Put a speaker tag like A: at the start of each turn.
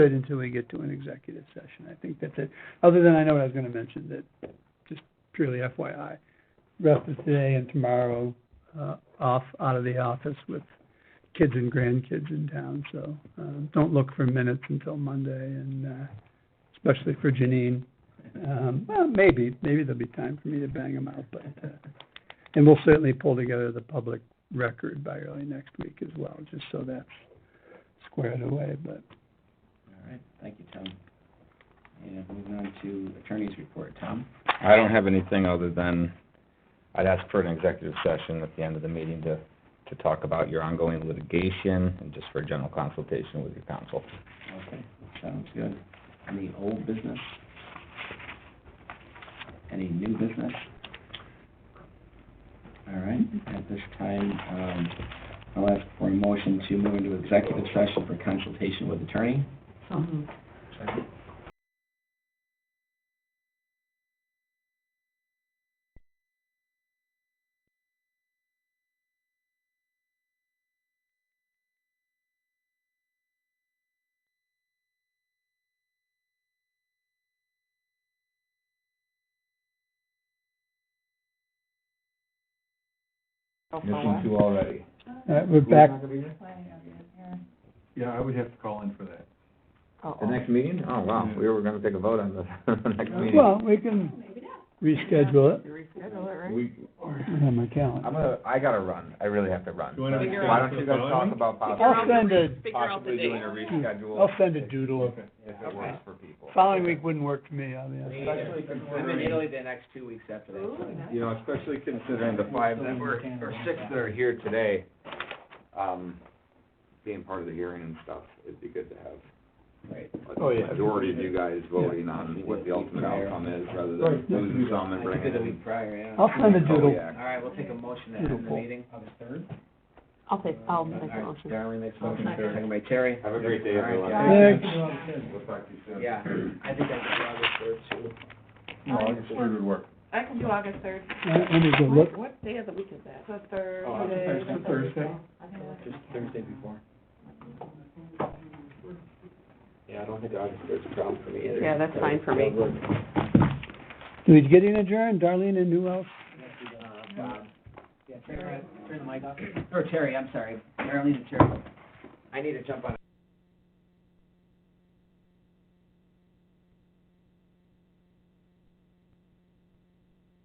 A: it until we get to an executive session. I think that's it. Other than I know what I was gonna mention, that just purely FYI. Rest of today and tomorrow, uh, off, out of the office with kids and grandkids in town, so, um, don't look for minutes until Monday and, uh, especially for Janine. Um, well, maybe, maybe there'll be time for me to bang them out, but, uh, and we'll certainly pull together the public record by early next week as well, just so that's squared away, but
B: All right, thank you, Tom. And moving on to attorney's report, Tom?
C: I don't have anything other than, I'd ask for an executive session at the end of the meeting to, to talk about your ongoing litigation and just for a general consultation with your counsel.
B: Okay, sounds good. Any old business? Any new business? All right, at this time, um, I'll ask for a motion to move into executive session for consultation with attorney.
A: um,
B: Second.
C: Missing two already.
A: All right, Uh, we're back,
D: Yeah, I would have to call in for that.
C: The next meeting? Oh, wow, we were gonna take a vote on the, the next meeting.
A: well, we can reschedule it.
C: We,
A: I have my
C: I'm
A: calendar.
C: gonna, I gotta run, I really have to run.
D: You wanna
E: Figure
C: Why
E: out
C: don't you guys talk about
A: I'll
C: possibly,
A: send a,
E: Figure out the
C: possibly doing
E: date.
C: a reschedule?
A: I'll send a doodle.
C: If it works for people.
A: Following week wouldn't work for me, I'll be honest.
C: Especially
B: I'm in
C: considering,
B: Italy the next two weeks after that. so-
C: you know, especially considering the five that were, or six that are here today, um, being part of the hearing and stuff, it'd be good to have
B: Right.
C: a
D: Oh, yeah.
C: majority of you guys voting on what the ultimate outcome is, rather than
D: Right.
C: losing some and
B: I did
C: bringing
B: it the
C: in.
B: week prior, yeah.
A: I'll send a doodle.
B: All
C: Kodiak.
B: right, we'll take a motion to end the
A: Beautiful.
B: meeting. August third?
E: I'll take, I'll make a motion.
B: Darlene makes
E: Oh,
B: a motion,
D: Second.
B: second by Terry.
C: Have a great day,
B: All right,
C: everyone.
B: guys.
A: Thanks.
D: We'll talk to you soon.
B: Yeah, I think I did August third too.
D: No, August third would work.
F: I can do August third,
A: All right, Let me go look.
E: What day of the week is that?
F: the third.
D: Oh, Thursday, Thursday.
B: Just Thursday before. Yeah, I don't think August third's a problem for me either.
E: Yeah, that's fine for me.
B: Uh,
A: Do we get in adjourned, Darlene and who else?
B: Yeah, turn the, turn the mic off. Or Terry, I'm sorry, Marilyn and Terry. I need to jump on.